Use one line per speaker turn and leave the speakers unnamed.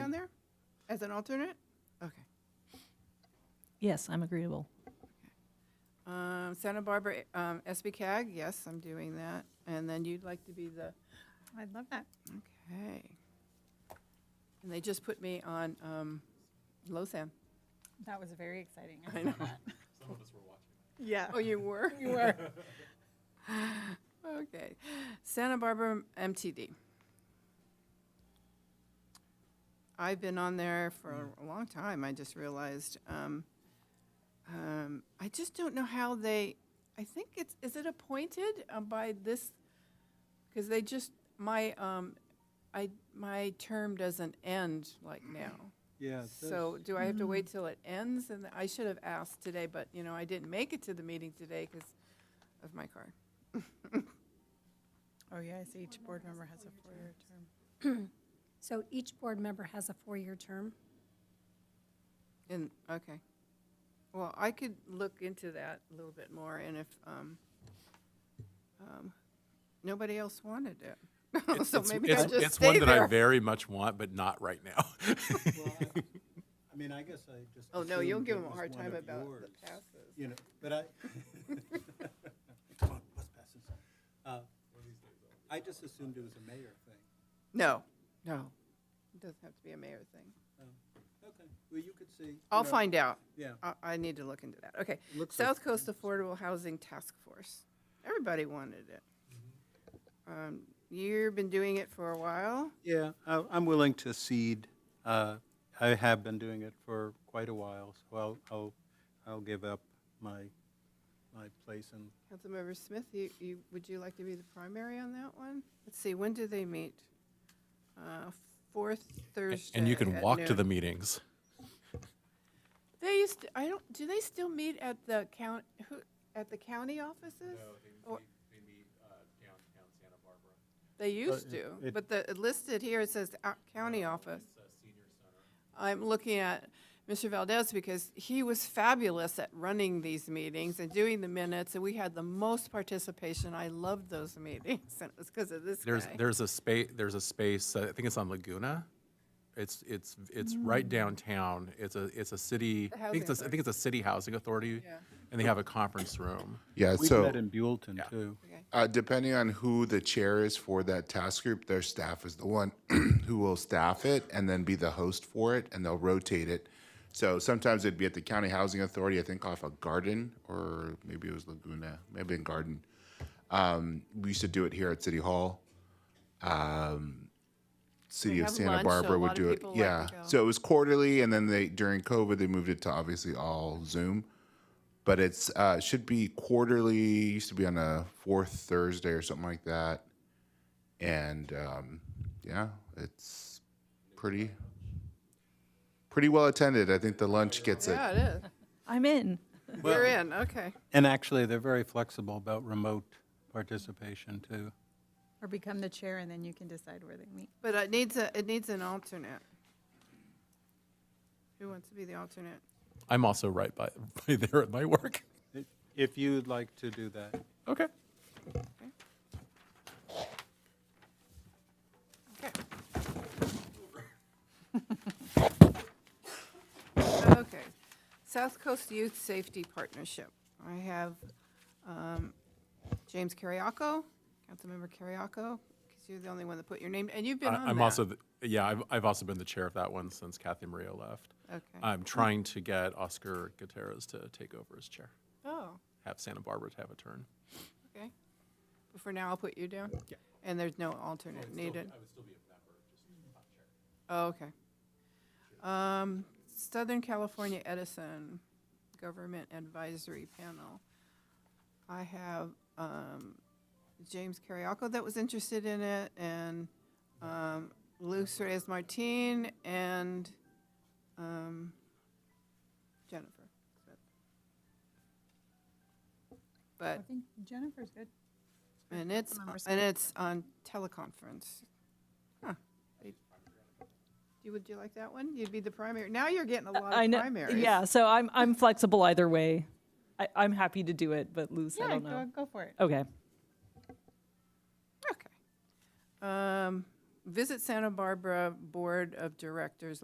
As an alternate? Okay.
Yes, I'm agreeable.
Um, Santa Barbara, um, SB CAG, yes, I'm doing that. And then you'd like to be the,
I'd love that.
okay. And they just put me on, um, LoSAN.
That was very exciting.
I know.
Some of us were watching.
Yeah.
Oh, you were?
You were.
Okay. Santa Barbara MTD. I've been on there for a long time, I just realized. Um, um, I just don't know how they, I think it's, is it appointed uh, by this? Because they just, my, um, I, my term doesn't end like now.
Yeah. it
So
does.
do I have to wait till it ends? And I should have asked today, but, you know, I didn't make it to the meeting today because of my car.
Oh, yes, each board member has a four-year term.
So each board member has a four-year term.
And, okay. Well, I could look into that a little bit more and if, um, um, nobody else wanted it. So maybe I
it's,
just
it's one
stay
that I
there.
very much want, but not right now.
Well, I- I mean, I guess I just.
Oh, no, you'll
assumed
give
it
them a
was
hard
one
time
of
about the
yours,
passes.
You know, but I. Come on, let's pass this. Uh, I just assumed it was a mayor thing.
No, no. It doesn't have to be a mayor thing.
Okay, well, you could see. you
I'll
know,
find out.
Yeah.
I, I need to look into that. Okay.
Looks like-
South Coast Affordable Housing Task Force. Everybody wanted it.
Mm-hmm.
Um, You've been doing it for a while.
Yeah, I- I'm willing to cede. Uh, I have been doing it for quite a while, so I'll, I'll, I'll give up my, my place and
Councilmember Smith, you, you, would you like to be the primary on that one? Let's see, when do they meet? Uh, Fourth Thursday.
and you can
at
walk to the
noon.
meetings.
They used, to- I don't, do they still meet at the count, who, at the county offices? Or-
uh, downtown Santa Barbara.
They used
it-
to,
it-
but the, it listed here, it says uh, county office. I'm looking at Mr. Valdez because he was fabulous at running these meetings and doing the minutes, and we had the most participation. I loved those meetings, and it was because of this
There's
guy.
there's a space there's a space. uh, I think it's on Laguna. It's it's it's right downtown. It's a it's a city. I think it's a, I
Mm. housing
think it's a city housing authority,
Yeah.
and they have a conference room.
Yeah,
We
so
met in Buellton too.
uh, depending on who the chair is for that task group, their staff is the one who will staff it and then be the host for it, and they'll rotate it. So sometimes it'd be at the county housing authority, I think off a garden, or maybe it was Laguna, maybe in Garden. Um, we used to do it here at City Hall. Um, City
They
of
have
Santa
lunch, so a
Barbara
lot
would
of
do it.
people like to
yeah,
go.
so it was quarterly, and then they during COVID they moved it to obviously all Zoom but it's uh should be quarterly used to be on a fourth thursday or something like that and um yeah it's pretty pretty well attended i think the lunch gets it
Yeah, it is.
I'm in.
You're in, okay.
And actually, they're very flexible about remote participation too.
Or become the chair, and then you can decide where they meet.
But it needs a, it needs an alternate. Who wants to be the alternate?
I'm also right by by there at my work.
If- If you'd like to do that.
Okay.
Okay. Okay. South Coast Youth Safety Partnership. I have um, James Carriaco, Councilmember Carriaco, because you're the only one that put your name, and you've been on
I,
that.
I'm also the, yeah. I've I've also been the chair of that one since Kathy Maria left.
Okay.
I'm trying to get Oscar Gutierrez to take over as chair.
Oh,
Have Santa Barbara to have a turn.
okay. But For now, I'll put you down?
Yeah.
And there's no alternate needed?
would still be a member, just not chair.
Oh, okay. Um, Southern California Edison Government Advisory Panel. I have, um, James Carriaco that was interested in it, and, um, Luz Reyes Martin, and, um, Jennifer. Smith.
I
But,
think Jennifer's good.
and it's,
Councilmember Smith.
and it's on teleconference. Huh. You, would you like that one? You'd be the primary. Now you're getting a lot
I
of
know.
primaries.
Yeah, so I'm I'm flexible either way. I, I'm happy to do it, but Luce, I
Yeah,
don't know.
go, go for it.
Okay.
Okay. Um, Visit Santa Barbara Board of Directors